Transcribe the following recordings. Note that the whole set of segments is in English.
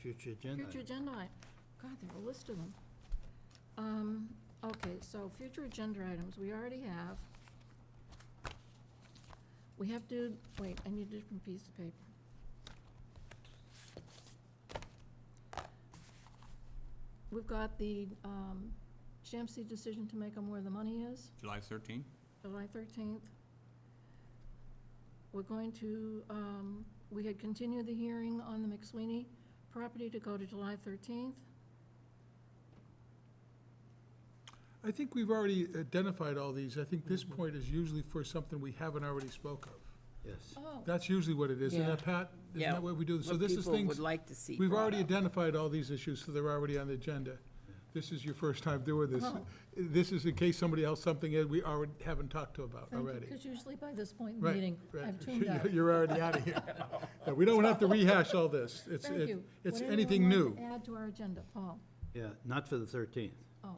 Future agenda. Future agenda, i- God, there are a list of them. Um, Okay, so future agenda items, we already have. We have to, wait, I need a different piece of paper. We've got the um, GMC decision to make on where the money is, July 13? July 13th. We're going to, um, we had continued the hearing on the McSweeney property to go to July 13th. I think we've already identified all these. I think this point is usually for something we haven't already spoke of. Yes. Oh, That's usually what it is, isn't that, Yeah. Pat? Isn't Yeah. that what we do? So What this is people would things, like to see we've brought already up. identified all these issues, so they're already on the agenda. This is your first time doing this. Oh. This is in case somebody else, something that we already haven't talked to about thank you, already. because usually by this point in the Right, meeting, right. I've tuned out. You're already out of here. Yeah, We don't have to rehash all this. It's, Thank it- you. it's Would anyone anything like to new. Add to our agenda, Paul. Yeah, not for the 13th. Oh,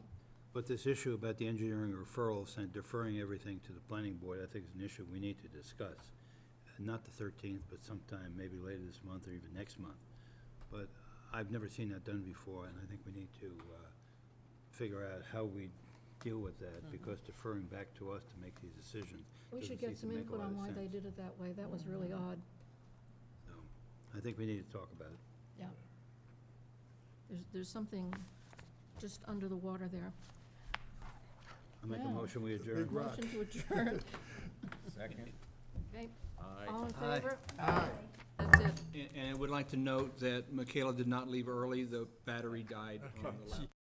But this issue about the engineering referrals and deferring everything to the planning board, I think is an issue we need to discuss. Uh, Not the 13th, but sometime maybe later this month or even next month. But I've never seen that done before, and I think we need to uh, figure out how we deal with that, because deferring back to us to make these decisions we doesn't should seem get to some make a input lot on of why they sense. did it that way. That was really odd, So, I think we need to talk about it. yeah. There's, there's something just under the water there. I make a Yeah. motion, we adjourn. Motion to adjourn. Second. Okay, Aye. all in favor? Aye. That's it. And I would like to note that Michaela did not leave early. The battery died on the laptop.